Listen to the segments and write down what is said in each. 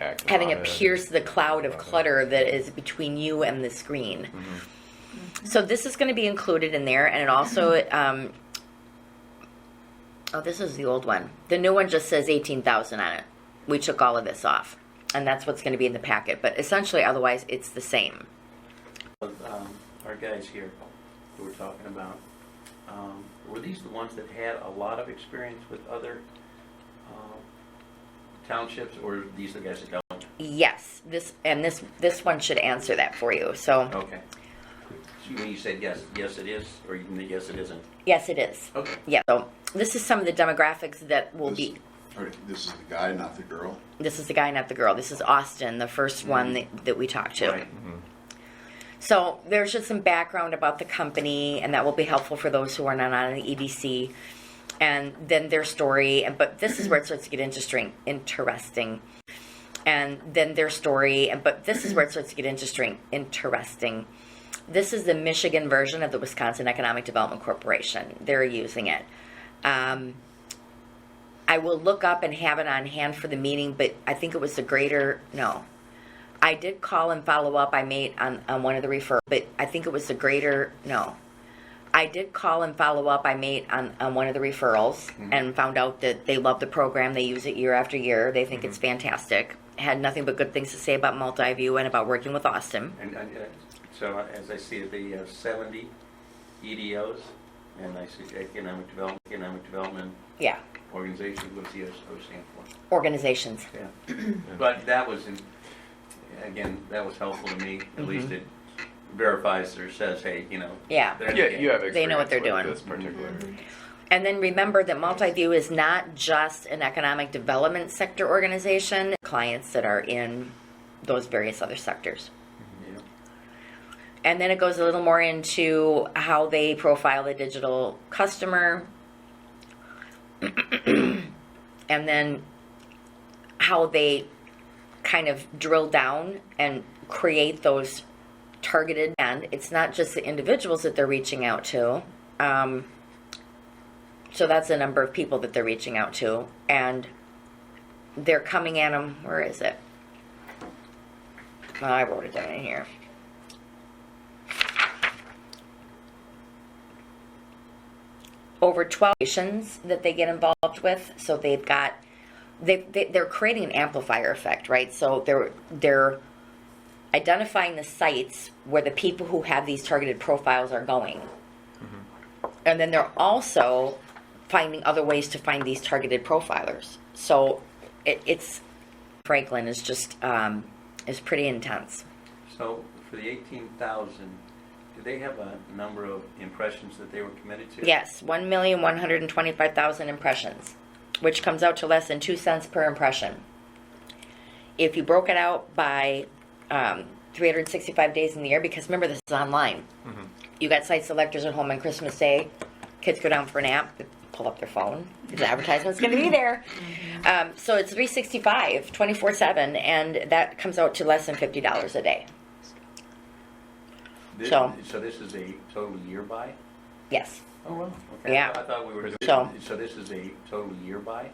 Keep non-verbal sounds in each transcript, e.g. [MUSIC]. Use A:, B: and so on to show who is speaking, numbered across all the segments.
A: Act
B: having
A: upon
B: it
A: it.
B: pierce the cloud of clutter that is between you and the screen. So this is going to be included in there, and it also. Um, oh, this is the old one. The new one just says eighteen thousand on it. We took all of this off, and that's what's going to be in the packet. But essentially, otherwise, it's the same.
C: Of, um, our guys here who we're talking about, um, were these the ones that had a lot of experience with other, um, townships, or are these the guys that don't?
B: Yes, this and this this one should answer that for you. So
C: Okay. So when you said yes, yes it is, or you, yes it isn't?
B: yes, it is.
C: Okay.
B: Yeah. So this is some of the demographics that will be.
D: All right, this is the guy, not the girl.
B: This is the guy, not the girl. This is Austin, the 1st one that, that we talked to.
C: Right.
B: So there's just some background about the company, and that will be helpful for those who are not on the EDC, and then their story. And but this is where it starts to get interesting. Interesting. And then their story, and but this is where it starts to get interesting. Interesting. This is the Michigan version of the Wisconsin Economic Development Corporation. They're using it. Um, I will look up and have it on hand for the meeting, but I think it was the greater, no. I did call and follow up, I made on, on one of the refer, but I think it was the greater, no. I did call and follow up, I made on, on one of the referrals and found out that they love the program, they use it year after year, they think it's fantastic. Had nothing but good things to say about Multiview and about working with Austin.
C: And, and, uh, so uh, as I see it, the uh, seventy EDOs, and I see economic development, economic development
B: Yeah,
C: organization, what's the O stand for?
B: organizations.
C: Yeah. But that was, in- again, that was helpful to me, at least it verifies or says, hey, you know.
B: Yeah.
C: they're-
A: Yeah, you have experience
B: They know what they're
A: with
B: doing.
A: This particular.
B: And then remember that Multiview is not just an economic development sector organization, clients that are in those various other sectors.
C: you know.
B: And then it goes a little more into how they profile the digital customer. [CLEARS THROAT] and then how they kind of drill down and create those targeted and it's not just the individuals that they're reaching out to um, so that's the number of people that they're reaching out to and they're coming at them where is it Oh, i wrote it down in here over 12 nations that they get involved with so they've got they, they they're creating an amplifier effect right so they're they're identifying the sites where the people who have these targeted profiles are going and then they're also finding other ways to find these targeted profilers so it, it's franklin is just um, is pretty intense
C: So for the eighteen thousand, do they have a number of impressions that they were committed to?
B: Yes, one million one hundred and twenty-five thousand impressions, which comes out to less than two cents per impression. If you broke it out by um, three hundred sixty-five days in the year, because remember this is online, you got site selectors at home on Christmas Day. Kids go down for a nap, they pull up their phone. The advertisement's going to be there. Um, so it's 365, 24 7, and that comes out to less than $50 a day.
C: This-
B: So-
C: So this is a total year buy?
B: Yes,
C: Oh, well. Okay. I
B: Yeah.
C: thought- I thought we were,
B: So-
C: doing- so this is a total year buy?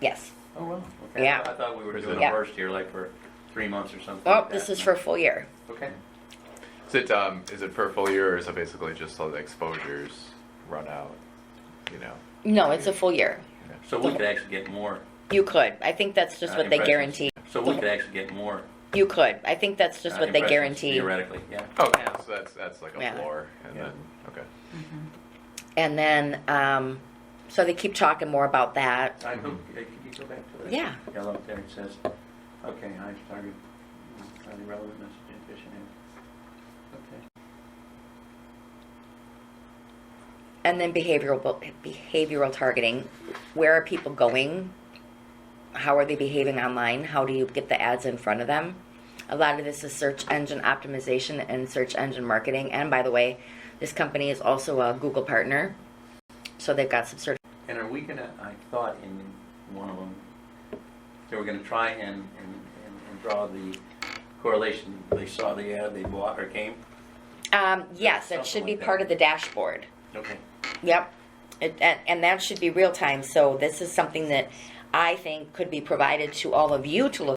B: yes.
C: Oh, well. Okay.
B: Yeah.
C: I thought we were doing
B: Yeah.
C: a first year, like for three months or something.
B: Oh,
C: like
B: this
C: that.
B: is for a full year.
C: Okay.
A: Is it um is it per full year or is it basically just so the exposures run out? You know.
B: No, it's a full year.
C: So we could actually get more.
B: You could. I think that's just
C: uh,
B: what they
C: impressions.
B: guarantee.
C: So we could actually get more.
B: You could. I think that's just
C: uh,
B: what they
C: impressions
B: guarantee.
C: Theoretically, yeah.
A: Okay, Oh, so that's that's like a
B: Yeah.
A: floor, and
C: Yeah.
A: then okay.
B: And then, um, so they keep talking more about that.
C: I hope, uh, could you go back to that?
B: Yeah.
C: Yellow up there, it says, okay, I started, highly relevant message and efficient. Okay.
B: And then behavioral behavioral targeting. Where are people going? How are they behaving online? How do you get the ads in front of them? A lot of this is search engine optimization and search engine marketing. And by the way, this company is also a Google partner, so they've got some sort.
C: And are we gonna, I thought in one of them, they were gonna try and, and, and- and draw the correlation, they saw the ad, they bought or came?
B: Um, yes, that
C: Something
B: should be
C: like that.
B: part of the dashboard.
C: Okay.
B: Yep. It, and, and that should be real time. So this is something that I think could be provided to all of you to look